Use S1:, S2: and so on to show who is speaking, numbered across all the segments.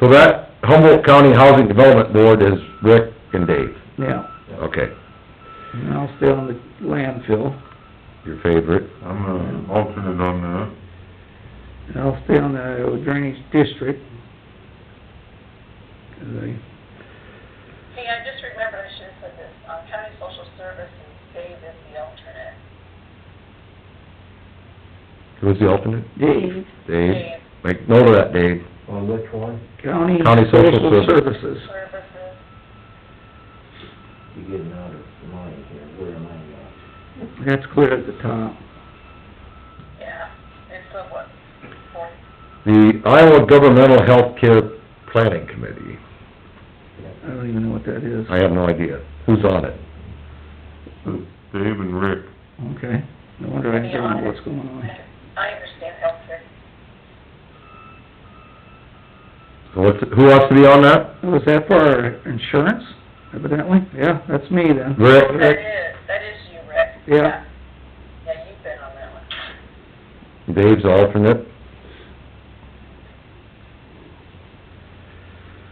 S1: So that Humboldt County Housing Development Board is Rick and Dave.
S2: yeah,
S1: Okay,
S2: and I'll stay on the landfill,
S1: your favorite.
S3: I'm an alternate on that.
S2: and I'll stay on the drainage district. 'Cause I-
S4: Hey, I just remembered, I should have said this, uh, County Social Services, Dave is the alternate.
S1: Who's the alternate?
S2: Dave,
S1: Dave.
S4: Dave
S1: Make note of that, Dave.
S5: On which one?
S2: County
S1: County Social
S2: Social
S1: Services.
S2: Services.
S4: Services,
S5: You're getting out of line here, where am I
S2: That's clear at the top.
S4: yeah, it's the what, fourth,
S1: The Iowa Governmental Healthcare Planning Committee.
S2: I don't even know what that is.
S1: I have no idea. Who's on it?
S3: Dave and Rick.
S2: Okay, no wonder I don't know what's going on.
S4: I understand healthcare.
S1: So what's, who wants to be on that?
S2: Was Oh, that for insurance evidently? Yeah, that's me then.
S4: That
S1: Rick?
S4: is, that is you, Rick.
S2: Yeah.
S4: Yeah, you've been on that one.
S1: Dave's alternate.
S5: going?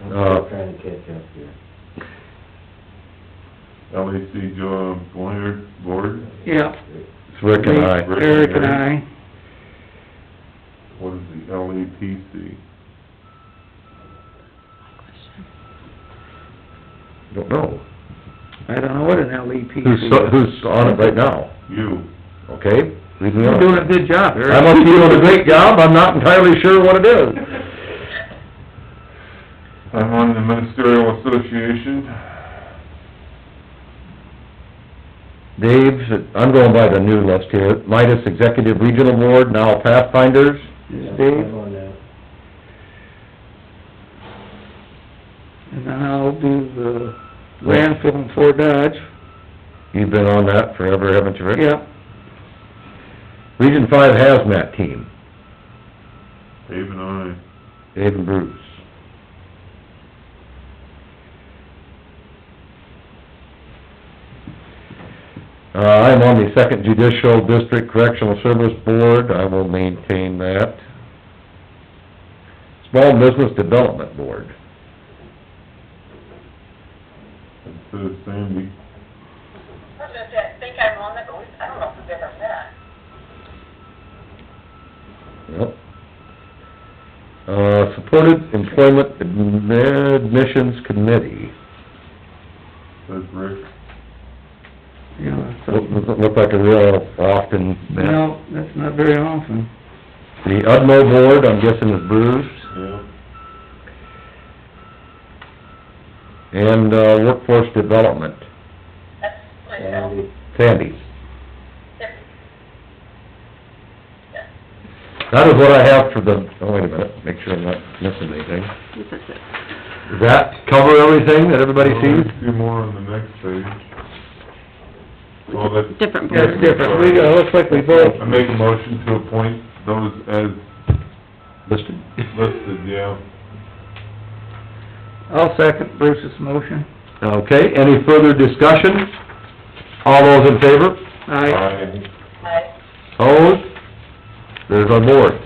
S5: I'm
S1: Uh,
S5: still trying to catch up here.
S3: LAC job, Boyer, Board,
S2: Yeah.
S1: It's Rick and I.
S3: Rick.
S2: Eric and I,
S3: what is the LAPC?
S1: Don't know.
S2: I don't know what an LEP
S1: Who's,
S2: is.
S1: who's on it right now?
S3: You.
S1: Okay? Leave me
S2: You're
S1: on.
S2: doing a good job,
S1: I
S2: Eric.
S1: must be doing a great job, I'm not entirely sure what it is.
S3: I'm on the Ministerial Association.
S1: Dave's, I'm going by the new list here, Midas Executive Regional Board, now Pathfinders.
S2: Is
S5: Yeah,
S2: Dave,
S5: I'm on that.
S2: and then I'll do the landfill in Fort Dodge.
S1: You've been on that forever, haven't you, Rick?
S2: Yeah,
S1: Region Five Hazmat Team,
S3: Dave and I.
S1: Dave and Bruce. Uh, I'm on the Second Judicial District Correctional Service Board, I will maintain that. Small Business Development Board.
S3: It says Sandy.
S4: I was gonna say, I think I'm on it, but we, I don't know if we've ever met.
S1: Yep. Uh, Supported Employment Admissions Committee.
S3: Says Rick.
S2: yeah, so,
S1: Doesn't look like a real often met.
S2: no, that's not very often.
S1: The UDMO Board, I'm guessing is Bruce,
S3: Yeah.
S1: and uh, Workforce Development,
S4: That's myself.
S5: Sandy,
S1: Sandy's.
S4: Yep. Yeah.
S1: That is what I have for the, oh, wait a minute, make sure I'm not missing anything. Does that cover everything that everybody sees?
S3: Few more on the next page. Oh, that's.
S6: Different
S2: That's
S6: board.
S2: different, we, uh, looks like we both,
S3: I make a motion to appoint those as
S1: Listed?
S3: listed, yeah.
S2: I'll second Bruce's motion.
S1: Okay, any further discussion? All those in favor?
S2: I,
S3: I,
S4: I,
S1: Opposed? There's our boards.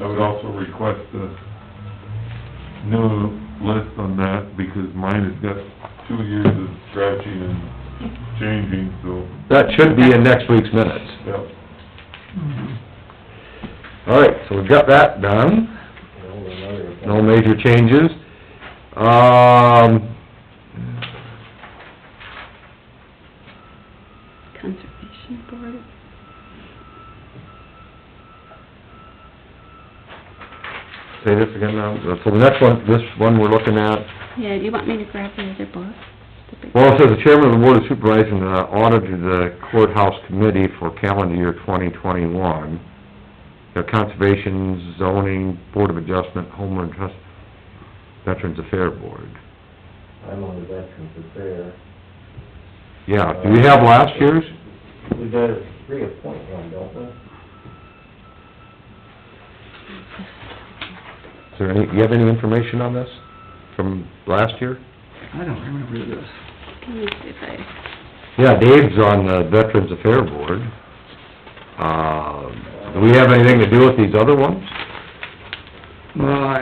S3: I would also request a new list on that, because mine has got two years of scratching and changing, so,
S1: That should be in next week's minutes.
S3: yep.
S2: Mm-hmm.
S1: All right, so we've got that done.
S5: hold another. account.
S1: No major changes. Um,
S6: Conservation board.
S1: say this again now. Uh, So the next one, this one we're looking at,
S6: Yeah, do you want me to grab the other book? The big-
S1: well, it says the chairman of the board of supervisors and the auditor of the courthouse committee for calendar year twenty twenty-one. The conservation zoning, board of adjustment, homeland trust, veterans affair board.
S5: I'm on the Veterans Affair.
S1: Yeah, do we have last year's?
S5: We got a reappoint one, don't we?
S1: Is there any, you have any information on this from last year?
S2: I don't remember this.
S6: Let me see if I,
S1: Yeah, Dave's on the Veterans Affair Board. Uh, do we have anything to do with these other ones?
S2: Well,